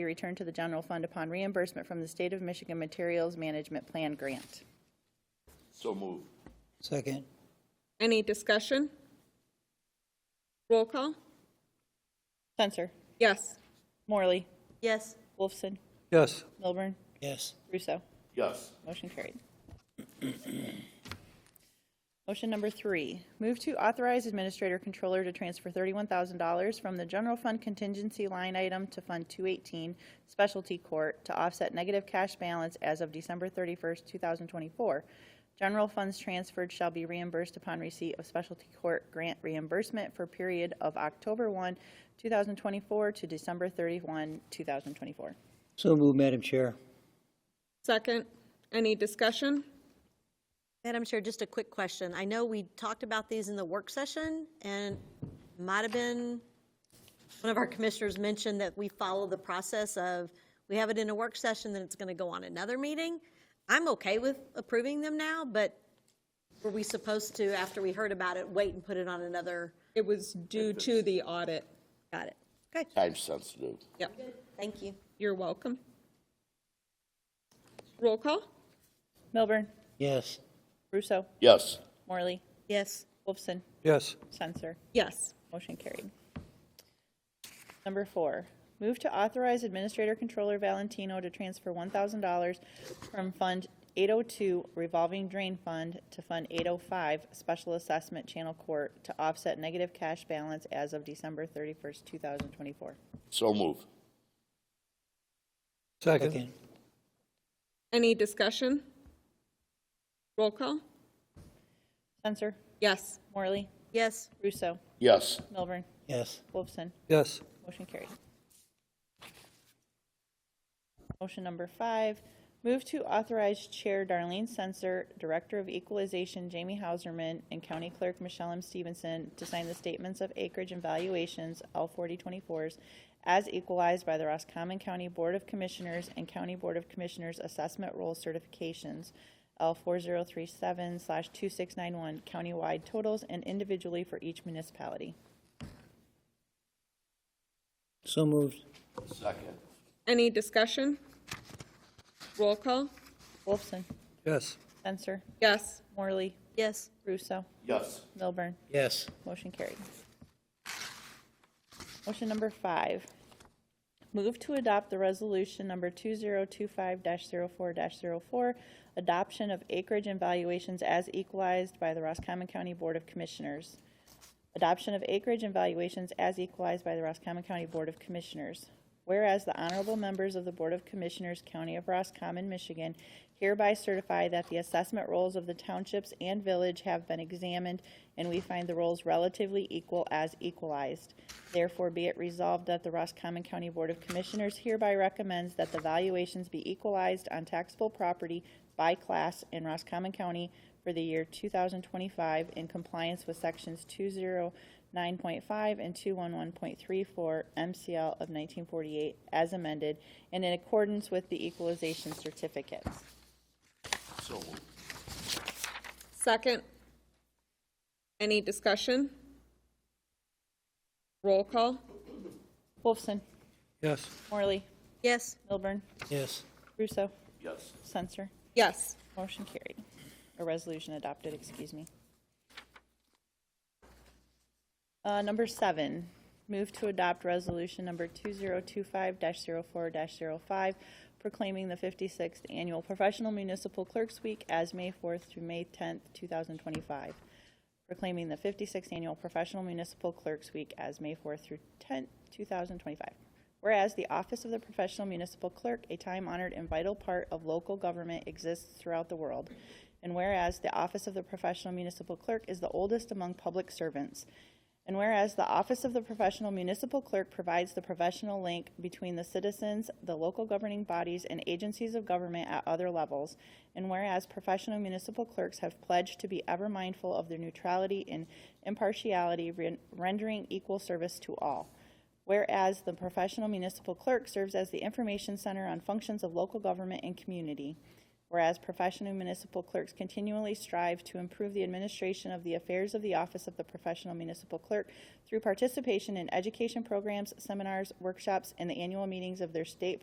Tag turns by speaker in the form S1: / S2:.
S1: be returned to the general fund upon reimbursement from the State of Michigan Materials Management Plan Grant.
S2: So move.
S3: Second.
S4: Any discussion? Roll call?
S1: Censor.
S4: Yes.
S1: Morley.
S5: yes,
S1: Wolfson.
S3: Yes.
S1: Milburn.
S3: Yes.
S1: Russo.
S2: Yes.
S1: Motion carried. Motion number three, move to authorize Administrator Controller to transfer $31,000 from the General Fund contingency line item to Fund 218 Specialty Court to offset negative cash balance as of December 31st, 2024. General funds transferred shall be reimbursed upon receipt of Specialty Court grant reimbursement for period of October 1, 2024 to December 31, 2024.
S3: So moved, Madam Chair.
S4: Second. Any discussion?
S5: Madam Chair, just a quick question. I know we talked about these in the work session, and might have been, one of our commissioners mentioned that we follow the process of, we have it in a work session, then it's going to go on another meeting. I'm okay with approving them now, but were we supposed to, after we heard about it, wait and put it on another?
S4: It was due to the audit.
S5: Got it. Okay,
S2: Time sensitive.
S4: Yep.
S5: thank you.
S4: You're welcome. Roll call?
S1: Milburn,
S3: Yes.
S1: Russo,
S2: Yes.
S1: Morley,
S5: Yes,
S1: Wolfson,
S3: Yes.
S1: Censor.
S4: Yes.
S1: Motion carried. Number four, move to authorize Administrator Controller Valentino to transfer $1,000 from Fund 802 Revolving Drain Fund to Fund 805 Special Assessment Channel Court to offset negative cash balance as of December 31st, 2024.
S2: So move.
S3: Second.
S4: Any discussion? Roll call?
S1: Censor,
S4: Yes.
S1: Morley,
S5: yes,
S1: Russo,
S2: Yes.
S1: Milburn,
S3: Yes.
S1: Wolfson.
S3: Yes.
S1: Motion carried. Motion number five, move to authorize Chair Darlene Sensor, Director of Equalization Jamie Hauserman, and County Clerk Michelle M. Stevenson to sign the statements of acreage and valuations, L forty twenty-fours, as equalized by the Roscommon County Board of Commissioners and County Board of Commissioners Assessment Role Certifications, L four zero three seven slash two six nine one, countywide totals and individually for each municipality.
S3: So moved.
S2: Second.
S4: Any discussion? Roll call?
S1: Wolfson,
S3: Yes.
S1: Censor,
S4: Yes.
S1: Morley,
S5: yes,
S1: Russo,
S2: Yes.
S1: Milburn,
S3: Yes.
S1: motion carried. Motion number five, move to adopt the resolution number 2025-04-04, adoption of acreage and valuations as equalized by the Roscommon County Board of Commissioners. Adoption of acreage and valuations as equalized by the Roscommon County Board of Commissioners. Whereas the honorable members of the Board of Commissioners, County of Roscommon, Michigan, hereby certify that the assessment rolls of the townships and village have been examined, and we find the rolls relatively equal as equalized. Therefore, be it resolved that the Roscommon County Board of Commissioners hereby recommends that the valuations be equalized on taxable property by class in Roscommon County for the year 2025 in compliance with Sections 209.5 and 211.34 MCL of 1948 as amended, and in accordance with the equalization certificates.
S2: So move.
S4: Second. Any discussion? Roll call?
S1: Wolfson,
S3: Yes.
S1: Morley,
S5: yes,
S1: Milburn,
S3: Yes.
S1: Russo,
S2: Yes.
S1: Censor.
S4: Yes.
S1: Motion carried. A resolution adopted, excuse me. Uh, Number seven, move to adopt resolution number 2025-04-05, proclaiming the 56th Annual Professional Municipal Clerks Week as May 4th through May 10th, 2025, proclaiming the 56th Annual Professional Municipal Clerks Week as May 4th through 10th, 2025. Whereas the office of the professional municipal clerk, a time-honored and vital part of local government, exists throughout the world. And whereas the office of the professional municipal clerk is the oldest among public servants. And whereas the office of the professional municipal clerk provides the professional link between the citizens, the local governing bodies, and agencies of government at other levels. And whereas professional municipal clerks have pledged to be ever mindful of their neutrality and impartiality, ren- rendering equal service to all. Whereas the professional municipal clerk serves as the information center on functions of local government and community. Whereas professional municipal clerks continually strive to improve the administration of the affairs of the Office of the Professional Municipal Clerk through participation in education programs, seminars, workshops, and the annual meetings of their state